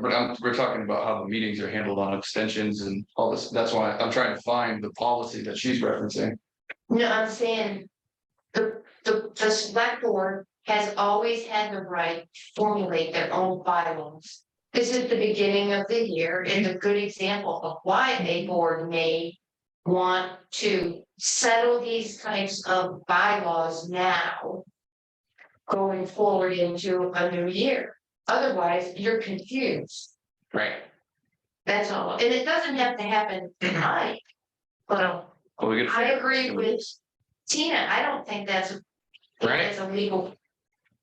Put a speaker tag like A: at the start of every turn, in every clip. A: But I'm, we're talking about how the meetings are handled on abstentions and all this, that's why I'm trying to find the policy that she's referencing.
B: No, I'm saying. The, the, the select board has always had the right to formulate their own bylaws. This is the beginning of the year, and a good example of why a board may. Want to settle these types of bylaws now. Going forward into a new year, otherwise you're confused,
A: Right.
B: that's all, and it doesn't have to happen tonight. But
A: Well, we could.
B: I agree with Tina, I don't think that's. a-
A: Right.
B: That's a legal,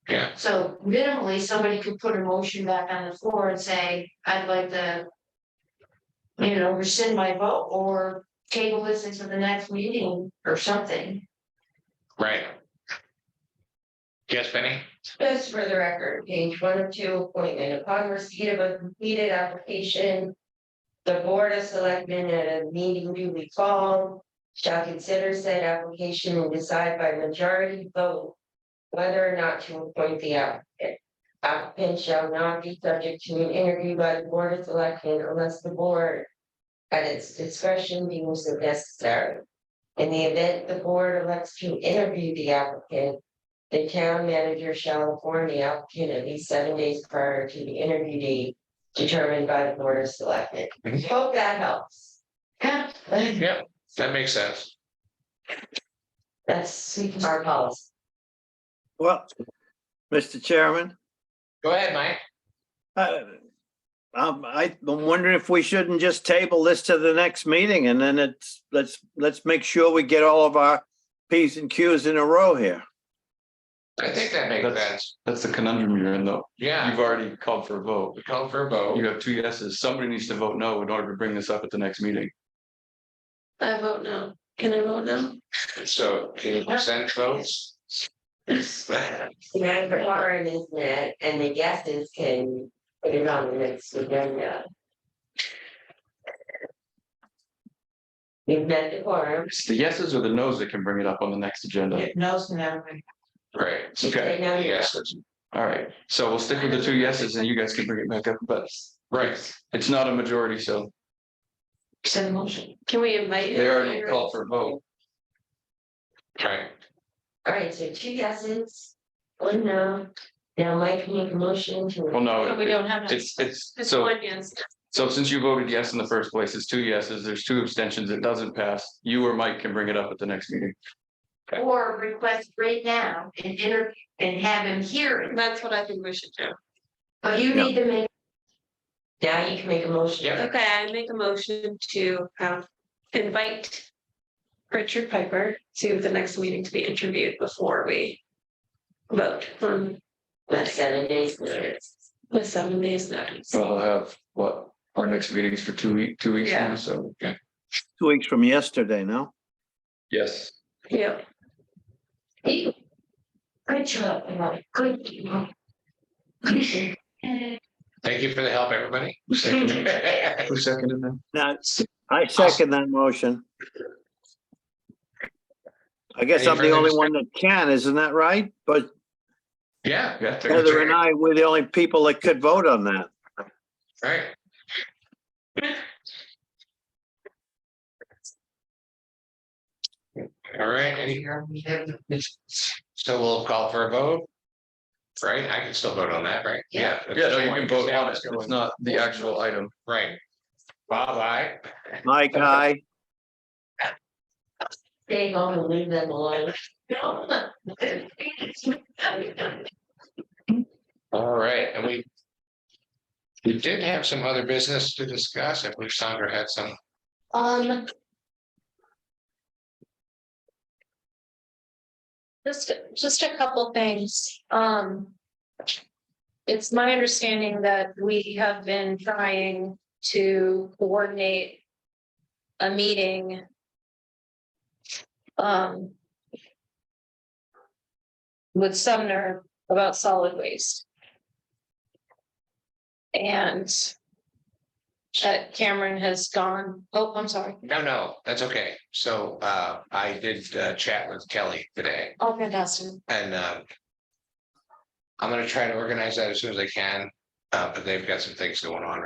A: Yeah,
B: so minimally, somebody could put a motion back on the floor and say, I'd like to. You know, rescind my vote or table this into the next meeting or something.
A: right. Yes, Benny?
C: Just for the record, page one of two, appointment upon receipt of a completed application. The Board of Selectmen at a meeting duly called shall consider said application and decide by majority vote. Whether or not to appoint the applicant. Applicant shall not be subject to an interview by the Board of Selectmen unless the board. At its discretion deems it necessary. In the event the board elects to interview the applicant. The town manager shall inform the applicant at least seven days prior to the interview date determined by the board of selectmen.
A: Mhm.
C: Hope that helps.
A: Yeah, that makes sense.
C: That's our policy.
D: Well, Mr. Chairman,
A: Go ahead, Mike.
D: uh, um, I, I'm wondering if we shouldn't just table this to the next meeting and then it's, let's, let's make sure we get all of our Ps and Qs in a row here.
E: I think that makes
A: That's-
E: sense.
A: That's the conundrum you're in though.
E: Yeah,
A: You've already called for a vote.
E: we call for a
A: You
E: vote.
A: have two yeses. Somebody needs to vote no in order to bring this up at the next meeting.
B: I vote no, can I vote no?
E: So can you send votes?
C: The quorum is met and the guesses can put it on the next agenda. We've met the quorum.
A: It's the yeses or the nos that can bring it up on the next agenda.
B: No's never.
E: Right.
A: Okay,
C: Now you-
E: Yes,
A: all right. So we'll stick with the two yeses and you guys can bring it back up, but
E: right.
A: it's not a majority, so
B: Send motion. Can we invite?
A: they already called for a vote.
E: Right.
C: All right, so two yeses, one no. Now Mike can make a motion to.
A: Well, no, it-
B: don't have.
A: it's, it's, so,
B: yes.
A: so since you voted yes in the first place, it's two yeses, there's two abstentions, it doesn't pass. You or Mike can bring it up at the next meeting.
B: Or request right now and interview and have him hear it,
F: That's what I think we should do.
C: Oh,
B: but you
D: Yeah.
B: need to make,
C: Now you can make a motion.
E: Yep.
F: Okay, I make a motion to um invite Richard Piper to the next meeting to be interviewed before we vote on
C: But seven days later.
F: with seven days notice.
A: So I'll have, what, our next meeting's for two week, two weeks now, so, okay.
D: Two weeks from yesterday, no?
A: yes.
F: Yeah,
B: good job, Mike, good. job.
E: Thank you for the help, everybody.
A: Who seconded that?
D: Now, I second that motion. I guess
E: Any
D: I'm the
E: further
D: only one that can, isn't that right? But
E: Yeah,
A: Yeah.
D: Heather and I, we're the only people that could vote on that.
E: right. All right, any, so we'll call for a vote. Right, I can still vote on that, right? Yeah.
A: Yeah, no, you can vote on it.
E: Yeah,
A: It's not the actual item.
E: Right. Bob, I. Uh,
D: Mike, aye.
C: Stay home and leave them alone.
E: All right, and we. We did have some other business to discuss. I believe Sandra had some.
F: um. Just, just a couple things, um.
G: it's my understanding that we have been trying to coordinate a meeting. um, With Sumner about solid waste. And that Cameron has gone, oh, I'm sorry.
E: No, no, that's okay. So uh, I did uh, chat with Kelly today
G: Oh, fantastic.
E: and um. I'm gonna try to organize that as soon as I can. Uh, but they've got some things going on right